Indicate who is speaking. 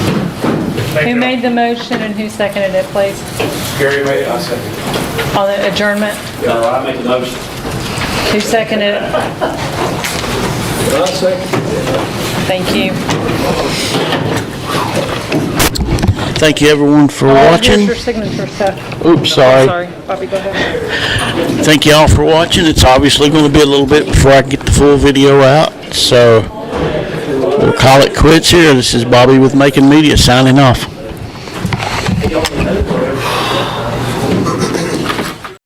Speaker 1: Who
Speaker 2: Second.
Speaker 1: made the motion and who seconded it, please?
Speaker 2: Gary made, I second.
Speaker 1: On the adjournment,
Speaker 3: No, I make the motion.
Speaker 1: who seconded it?
Speaker 2: I second.
Speaker 1: Thank you.
Speaker 4: Thank you, everyone, for
Speaker 1: Uh, Here's
Speaker 4: watching.
Speaker 1: your signature stuff.
Speaker 4: Oops, sorry.
Speaker 1: Sorry, Bobby, go ahead.
Speaker 4: Thank you all for watching. It's obviously going to be a little bit before I can get the full video out, so we'll call it quits here. This is Bobby with Making Media signing off.